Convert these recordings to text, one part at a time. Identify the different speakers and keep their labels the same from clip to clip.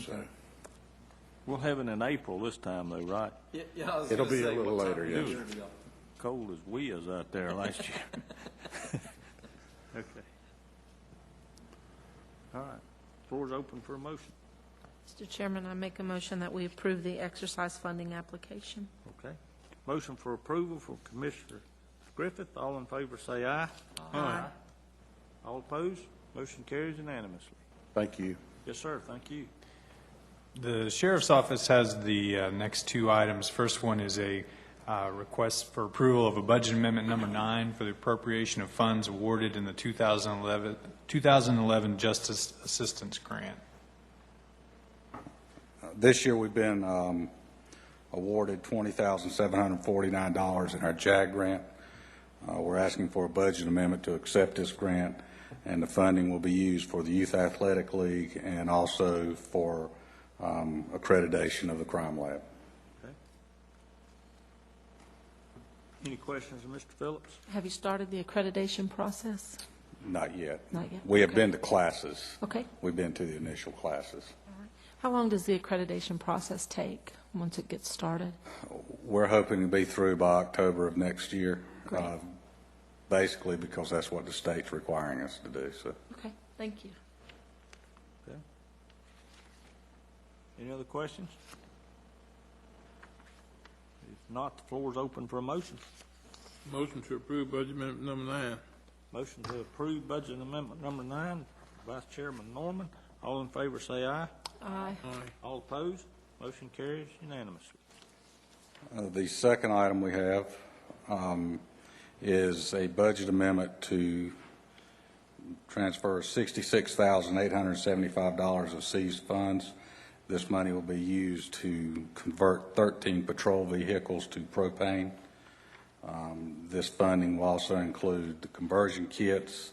Speaker 1: so.
Speaker 2: We'll have it in April this time, though, right?
Speaker 3: Yeah, yeah, I was
Speaker 1: It'll
Speaker 3: gonna
Speaker 1: be a
Speaker 3: say, what
Speaker 1: little
Speaker 3: time
Speaker 1: later,
Speaker 3: of year
Speaker 1: yes.
Speaker 3: do y'all-
Speaker 2: Cold as we is out there last year. Okay. All right. Floor's open for a motion.
Speaker 4: Mr. Chairman, I make a motion that we approve the exercise funding application.
Speaker 2: Okay. Motion for approval from Commissioner Griffith. All in favor, say aye. Aye. All opposed? Motion carries unanimously.
Speaker 1: Thank you.
Speaker 2: Yes, sir. Thank you.
Speaker 5: The sheriff's office has the uh, next two items. First one is a uh, request for approval of a budget amendment number nine for the appropriation of funds awarded in the 2011 2011 Justice Assistance Grant.
Speaker 6: This year, we've been um, awarded $20,749 in our JAG grant. Uh, We're asking for a budget amendment to accept this grant, and the funding will be used for the Youth Athletic League and also for um, accreditation of the crime lab.
Speaker 2: Okay. Any questions of Mr. Phillips?
Speaker 4: Have you started the accreditation process?
Speaker 6: Not yet.
Speaker 4: Not yet?
Speaker 6: We have
Speaker 4: Okay.
Speaker 6: been to classes.
Speaker 4: Okay.
Speaker 6: We've been to the initial classes.
Speaker 4: How long does the accreditation process take, once it gets started?
Speaker 6: We're hoping to be through by October of next year,
Speaker 4: Great.
Speaker 6: uh, basically because that's what the state's requiring us to do, so.
Speaker 4: Okay, thank you.
Speaker 2: Okay. Any other questions? If not, the floor's open for a motion.
Speaker 7: Motion to approve budget amendment number nine.
Speaker 2: Motion to approve budget amendment number nine, Vice Chairman Norman. All in favor, say aye.
Speaker 4: Aye.
Speaker 7: Aye.
Speaker 2: All opposed, motion carries unanimously.
Speaker 6: Uh, The second item we have um, is a budget amendment to transfer $66,875 of seized funds. This money will be used to convert 13 patrol vehicles to propane. Um, This funding will also include the conversion kits,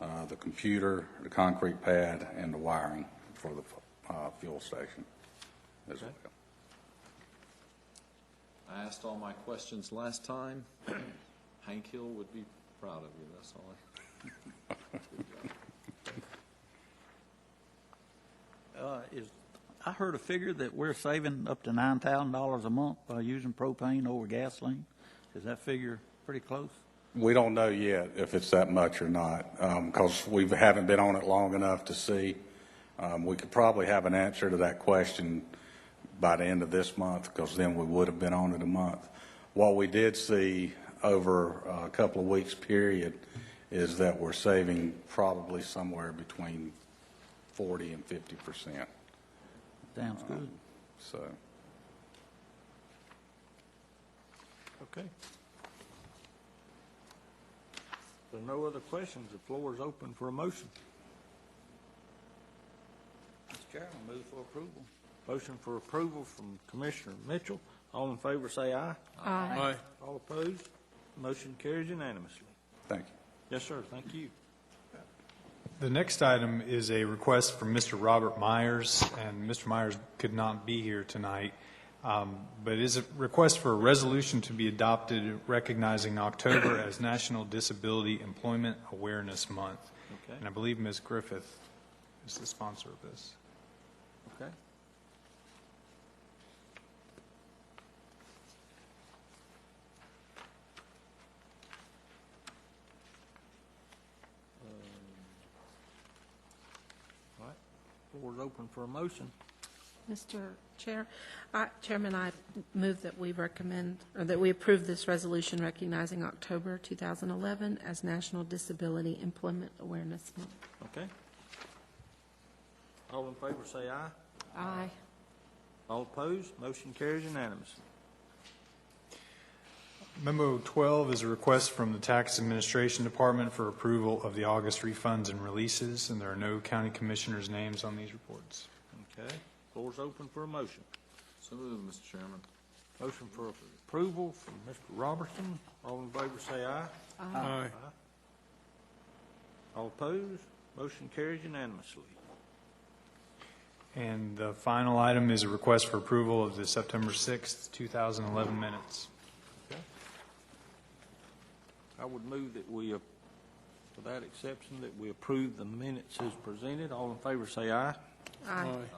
Speaker 6: uh, the computer, the concrete pad, and the wiring for the uh, fuel station as well.
Speaker 3: I asked all my questions last time. Hank Hill would be proud of you, that's all. I-
Speaker 8: Uh, is, I heard a figure that we're saving up to nine thousand dollars a month by using propane over gasoline. Is that figure pretty close?
Speaker 6: We don't know yet if it's that much or not, because we haven't been on it long enough to see. Um, We could probably have an answer to that question by the end of this month, because then we would have been on it a month. What we did see over uh, a couple of weeks' period is that we're saving probably somewhere between 40 and 50 percent,
Speaker 8: Sounds good.
Speaker 6: so.
Speaker 2: Okay. If there are no other questions, the floor is open for a motion.
Speaker 8: Mr. Chairman, move for approval.
Speaker 2: Motion for approval from Commissioner Mitchell. All in favor, say aye.
Speaker 4: Aye.
Speaker 7: Aye.
Speaker 2: All opposed, motion carries unanimously.
Speaker 6: Thank you.
Speaker 2: Yes, sir, thank you.
Speaker 5: The next item is a request from Mr. Robert Myers, and Mr. Myers could not be here tonight, um, but it is a request for a resolution to be adopted recognizing October as National Disability Employment Awareness Month.
Speaker 2: Okay.
Speaker 5: And I believe Ms. Griffith is the sponsor of this.
Speaker 2: Okay. Um, All right, floor's open for a motion.
Speaker 4: Mr. Chair, I- Chairman, I move that we recommend, or that we approve this resolution recognizing October 2011 as National Disability Employment Awareness Month.
Speaker 2: Okay. All in favor, say aye.
Speaker 4: Aye.
Speaker 2: All opposed, motion carries unanimously.
Speaker 5: Memo 12 is a request from the Tax Administration Department for approval of the August refunds and releases, and there are no county commissioners' names on these reports.
Speaker 2: Okay, floor's open for a motion.
Speaker 3: So moved, Mr. Chairman.
Speaker 2: Motion for approval from Mr. Robertson. All in favor, say aye.
Speaker 7: Aye.
Speaker 2: All opposed, motion carries unanimously.
Speaker 5: And the final item is a request for approval of the September 6th, 2011 minutes.
Speaker 2: I would move that we, uh, without exception, that we approve the minutes as presented. All in favor, say aye.
Speaker 4: Aye.